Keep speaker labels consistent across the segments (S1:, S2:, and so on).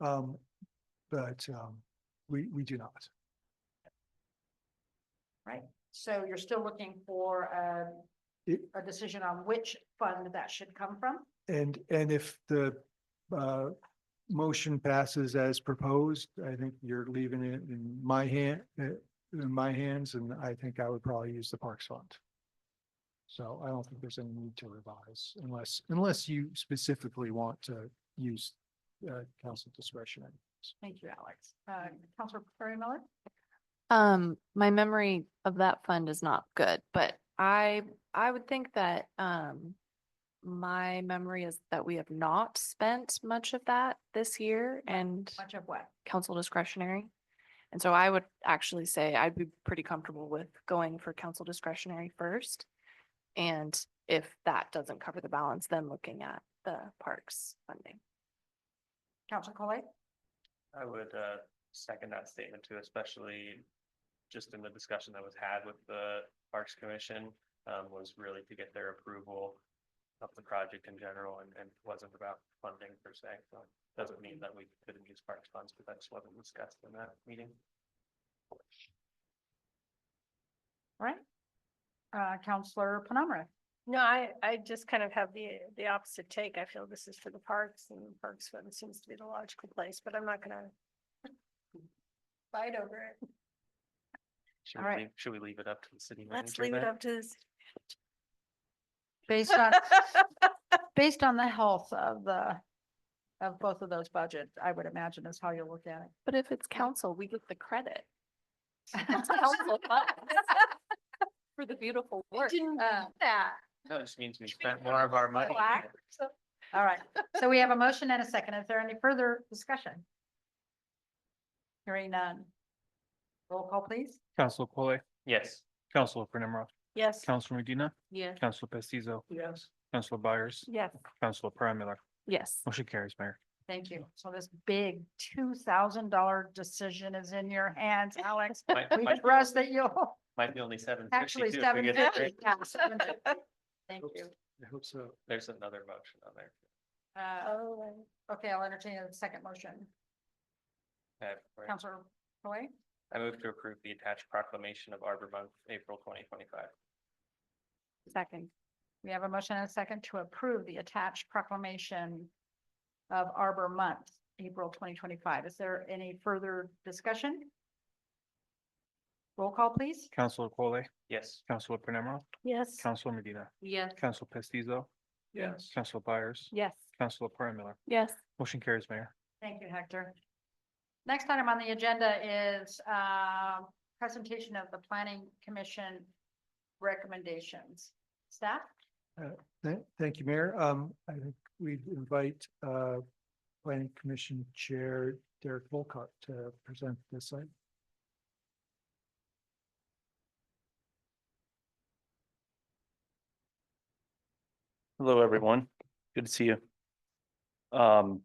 S1: Um, but, um, we, we do not.
S2: right? So you're still looking for
S1: It-
S2: a, a decision on which fund that should come from?
S1: And, and if the, uh, motion passes as proposed, I think you're leaving it in my hand, uh, in my hands, and I think I would probably use the Parks Fund. So I don't think there's any need to revise unless, unless you specifically want to use, uh, council discretion.
S2: Thank you, Alex. Uh, Counselor Perry Miller?
S3: Um, my memory of that fund is not good, but I, I would think that, um, my memory is that we have not spent much of that this year
S2: Right.
S3: and
S2: Much of what?
S3: council discretionary. And so I would actually say I'd be pretty comfortable with going for council discretionary first. And if that doesn't cover the balance, then looking at the parks funding.
S2: Counselor Collet?
S4: I would uh second that statement too, especially just in the discussion that was had with the Parks Commission, um, was really to get their approval of the project in general and and wasn't about funding per se. So doesn't mean that we couldn't use parks funds, but that just wasn't discussed in that meeting.
S2: Right? Uh, Counselor Penamara?
S5: No, I, I just kind of have the, the opposite take. I feel this is for the parks and the parks fund seems to be the logical place, but I'm not gonna fight over it.
S4: Should
S2: All right.
S4: we leave, should we leave it up to the city
S5: Let's
S4: manager
S5: leave it
S4: then?
S5: up to this.
S2: Based on, based on the health of the, of both of those budgets, I would imagine is how you look at
S3: But if it's council, we get the credit. It's
S2: it.
S3: council funds For the beautiful work.
S2: Uh,
S5: that.
S4: No, it just means we spent more of our money.
S2: Black. All right, so we have a motion and a second. Is there any further discussion? Hearing none. Roll call, please.
S6: Council Collet,
S4: Yes.
S6: Council Panemra,
S5: Yes.
S6: Council Medina,
S3: Yes.
S6: Council Pestizo,
S4: Yes.
S6: Council Byers,
S3: Yes.
S6: Council Prime Miller.
S3: Yes.
S6: Motion carries, Mayor.
S2: Thank you. So this big two thousand dollar decision is in your hands, Alex.
S4: Might,
S2: We
S4: might,
S2: trust that you'll,
S4: might be only seven fifty-two.
S2: actually seven fifty. Thank you.
S1: I hope so.
S4: There's another motion on there.
S2: Uh,
S5: Oh,
S2: okay, I'll entertain a second motion.
S4: Okay, right.
S2: Counselor Roy,
S4: I move to approve the attached proclamation of Arbor Month, April twenty twenty-five.
S3: Second.
S2: we have a motion and a second to approve the attached proclamation of Arbor Month, April twenty twenty-five. Is there any further discussion? Roll call, please.
S6: Council Collet,
S4: Yes.
S6: Council Panemra,
S5: yes.
S6: Council Medina,
S3: Yes.
S6: Council Pestizo,
S1: Yes.
S6: Council Byers,
S3: Yes.
S6: Council Prime Miller.
S3: Yes.
S6: Motion carries, Mayor.
S2: Thank you, Hector. Next item on the agenda is um, presentation of the planning commission recommendations. Staff?
S1: Thank, thank you, Mayor. Um, I think we'd invite, uh, Planning Commission Chair Derek Volkart to present this site.
S4: Hello, everyone. Good to see you. Um.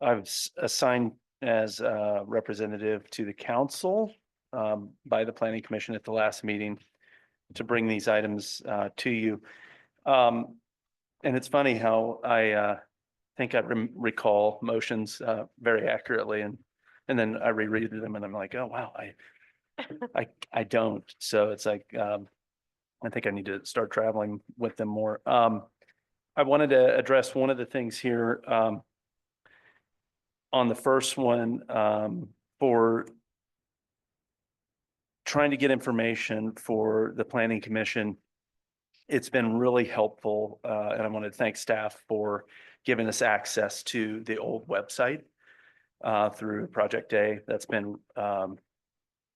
S4: I've s- assigned as a representative to the council um by the planning commission at the last meeting to bring these items uh to you. Um, and it's funny how I uh think I rem- recall motions uh very accurately and and then I reread them and I'm like, oh, wow, I I I don't. So it's like um I think I need to start traveling with them more. Um, I wanted to address one of the things here, um, on the first one, um, for trying to get information for the planning commission. It's been really helpful, uh, and I want to thank staff for giving us access to the old website uh, through Project Day. That's been, um,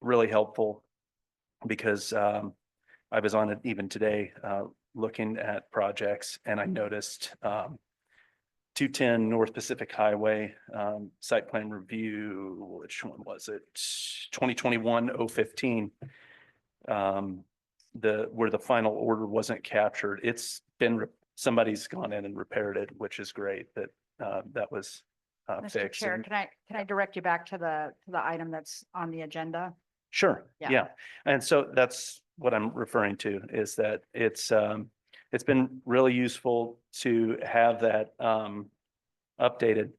S4: really helpful because, um, I was on it even today, uh, looking at projects and I noticed, um, two ten North Pacific Highway, um, site plan review, which one was it? Twenty twenty-one oh fifteen. Um, the, where the final order wasn't captured, it's been, re- somebody's gone in and repaired it, which is great that, uh, that was, uh,
S2: Mr.
S4: fixed.
S2: Chair,
S4: and-
S2: can I, can I direct you back to the, to the item that's on the agenda?
S4: Sure,
S2: Yeah.
S4: yeah. And so that's what I'm referring to is that it's um, it's been really useful to have that um updated